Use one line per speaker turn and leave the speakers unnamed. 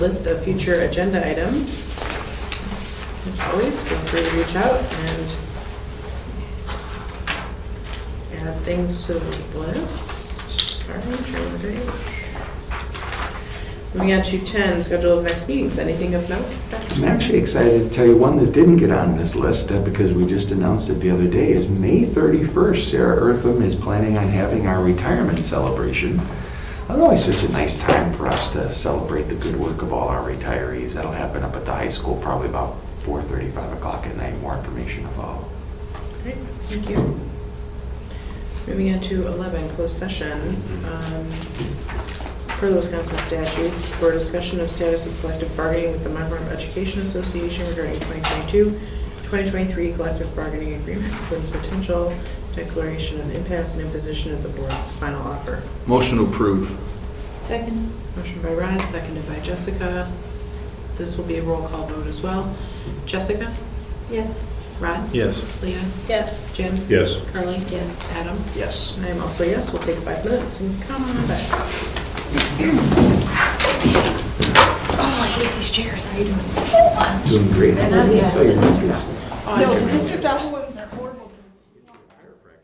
List of future agenda items. As always, feel free to reach out and add things to the list. Sorry, turn the page. Moving on to 10, schedule of next meetings. Anything of note, Dr.
I'm
Sarah?
actually excited to tell you one that didn't get on this list uh, because we just announced it the other day is May 31st. Sarah Eartham is planning on having our retirement celebration. That's always such a nice time for us to celebrate the good work of all our retirees. That'll happen up at the high school probably about 4:30, 5 o'clock at night. More information to follow.
Great, thank you. Moving on to 11, closed session. um, Per the Wisconsin statutes, for discussion of status of collective bargaining with the Monroe Education Association regarding 2022-2023 collective bargaining agreement for the potential declaration of impasse and imposition of the board's final offer.
Motion to approve.
Second.
Motion by Rod, seconded by Jessica. This will be a roll call vote as well. Jessica?
Yes.
Rod?
Yes.
Leah?
Yes.
Jim?
Yes.
Carly? Yes. Adam?
Yes.
I am also yes, we'll take five minutes and come on back.
Doing great. I saw your pictures.
No, Sister Bella was